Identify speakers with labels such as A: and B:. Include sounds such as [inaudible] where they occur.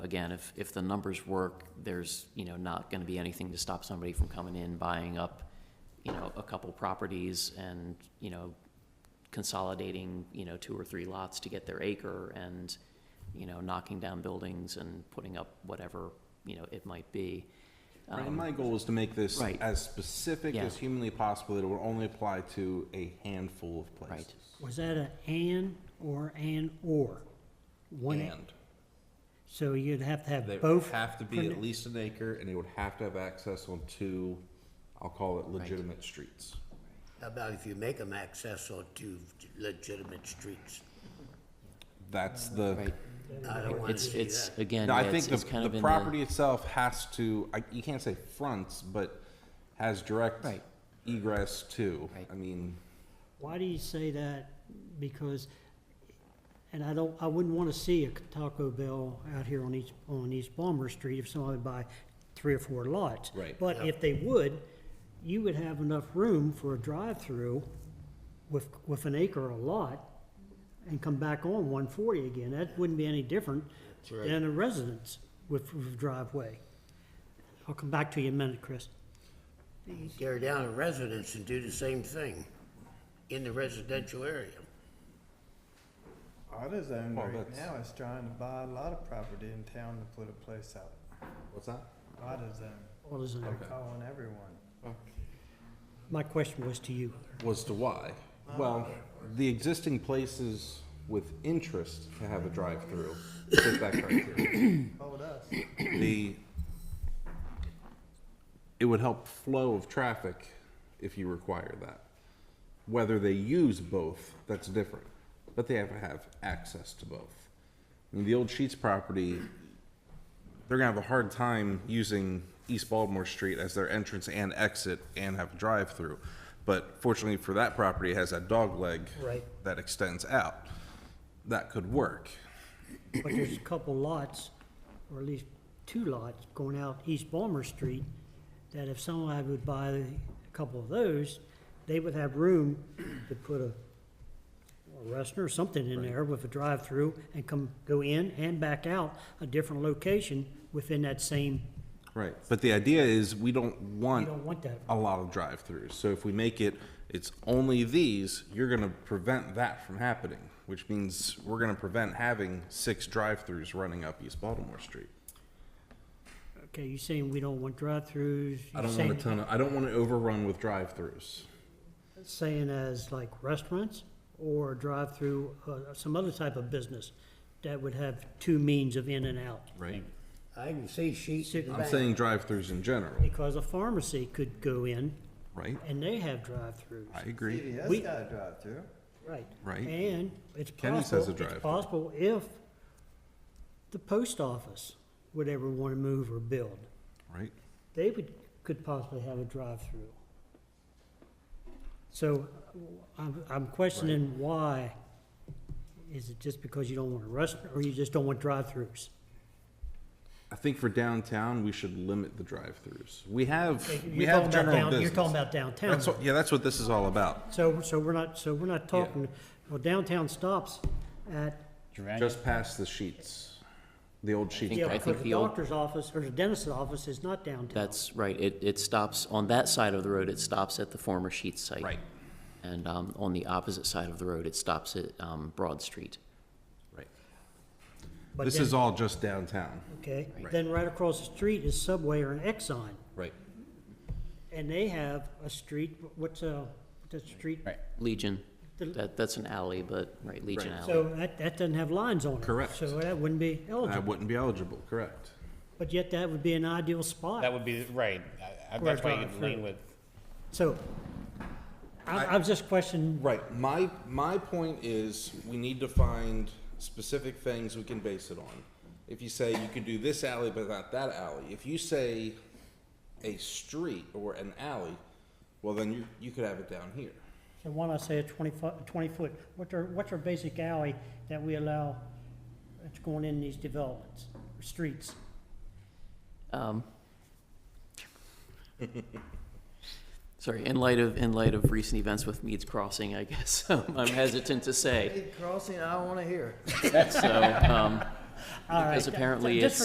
A: again, if, if the numbers work, there's, you know, not gonna be anything to stop somebody from coming in, buying up, you know, a couple properties and, you know, consolidating, you know, two or three lots to get their acre and, you know, knocking down buildings and putting up whatever, you know, it might be.
B: Right, and my goal is to make this
A: Um, Right.
B: as specific
A: Yeah.
B: as humanly possible, that it will only apply to a handful of places.
C: Was that a and or an or? One, a-
B: And
C: so you'd have to
B: they
C: have
B: would
C: both,
B: have to be
C: pronu-
B: at least an acre, and they would have to have access on two, I'll call it legitimate streets.
D: How about if you make them access onto legitimate streets?
B: That's the,
A: Mm, Right,
D: I don't want to
A: it's,
D: see
A: it's,
D: that.
A: again,
B: No,
A: yeah,
B: I
A: it's
B: think
A: it's kind
B: the,
A: of
B: the
A: in
B: property
A: the,
B: itself has to, I, you can't say fronts, but has direct
A: Right.
B: egress to.
A: Right.
B: I mean,
C: why do you say that? Because, and I don't, I wouldn't want to see a Taco Bell out here on East, on East Balmer Street if somebody would buy three or four lots.
B: Right.
C: But if they would, you would have enough room for a drive-through with, with an acre or a lot and come back on one forty again. That wouldn't be any different than a residence with with driveway. I'll come back to you in a minute, Chris.
D: Tear down a residence and do the same thing in the residential area.
E: AutoZone
B: Well,
E: right
B: that's-
E: now is trying to buy a lot of property in town to put a place out.
B: what's that?
E: AutoZone,
C: All is in
E: they're
C: there.
E: calling everyone.
C: My question was to you.
B: was to why? Well, the existing places with interest to have a drive-through fit that criteria.
E: Hold us.
B: The, it would help flow of traffic if you require that. Whether they use both, that's different, but they have to have access to both. I mean, the old Sheets property, they're gonna have a hard time using East Baltimore Street as their entrance and exit and have a drive-through. But fortunately for that property, it has that dog leg
C: Right.
B: that extends out. That could work.
C: But there's a couple lots, or at least two lots, going out East Balmer Street, that if somebody would buy a couple of those, they would have room to put a a restaurant or something in there with a drive-through and come, go in and back out a different location within that same,
B: Right. But the idea is we don't
C: you
B: want
C: don't want that.
B: a lot of drive-throughs. So if we make it, it's only these, you're gonna prevent that from happening, which means we're gonna prevent having six drive-throughs running up East Baltimore Street.
C: Okay, you're saying we don't want drive-throughs?
B: I
C: you're
B: don't want a
C: saying-
B: ton of, I don't want to overrun with drive-throughs.
C: saying as like restaurants or drive-through, uh, some other type of business that would have two means of in and out.
B: Right.
D: I can see sheets in the
B: I'm
D: back.
B: saying drive-throughs in general,
C: Because a pharmacy could go in
B: right?
C: and they have drive-throughs.
B: I agree.
C: We-
E: CVS got a drive-through.
C: Right.
B: Right.
C: And it's
B: Kenny's has a
C: possible,
B: drive-thru.
C: it's possible if the post office would ever want to move or build,
B: Right?
C: they would, could possibly have a drive-through. So I'm, I'm questioning why. Is it just because you don't want a restaurant or you just don't want drive-throughs?
B: I think for downtown, we should limit the drive-throughs. We have, we
C: You're talking
B: have
C: about
B: general
C: down, you're
B: business.
C: talking about downtown.
B: That's what, yeah, that's what this is all about.
C: So, so we're not, so we're not talking, well, downtown stops at,
B: Just past the sheets, the old sheets.
C: yeah,
A: I
C: because
A: think
C: the
A: the old-
C: doctor's office or the dentist's office is not downtown.
A: that's right, it, it stops, on that side of the road, it stops at the former Sheets site.
B: Right,
A: And, um, on the opposite side of the road, it stops at, um, Broad Street.
B: right.
C: But
B: This
C: then-
B: is all just downtown.
C: Okay, then right across the street is Subway or an Exxon,
B: Right.
C: and they have a street, what's a, that street?
A: Legion,
C: The-
A: that, that's an alley, but, right, Legion
B: Right.
A: Alley.
C: So that, that doesn't have lines on it.
B: Correct.
C: So that wouldn't be
B: That
C: eligible,
B: wouldn't be eligible, correct.
C: but yet that would be an ideal spot.
F: That would be, right, I- I- that's why you
C: Correct.
F: lean with,
C: So I, I was just questioning,
B: Right, my, my point is, we need to find specific things we can base it on. If you say you could do this alley but not that alley, if you say a street or an alley, well, then you, you could have it down here.
C: so why not say a twenty-foot, twenty-foot, what's our, what's our basic alley that we allow that's going in these developments, or streets?
A: Um, Sorry, in light of, in light of recent events with Mead's Crossing, I guess, [laughs] I'm hesitant to say,
E: Crossing, I don't wanna hear it.
A: so, um,
C: All
A: because
C: right,
A: apparently
C: just
A: it's.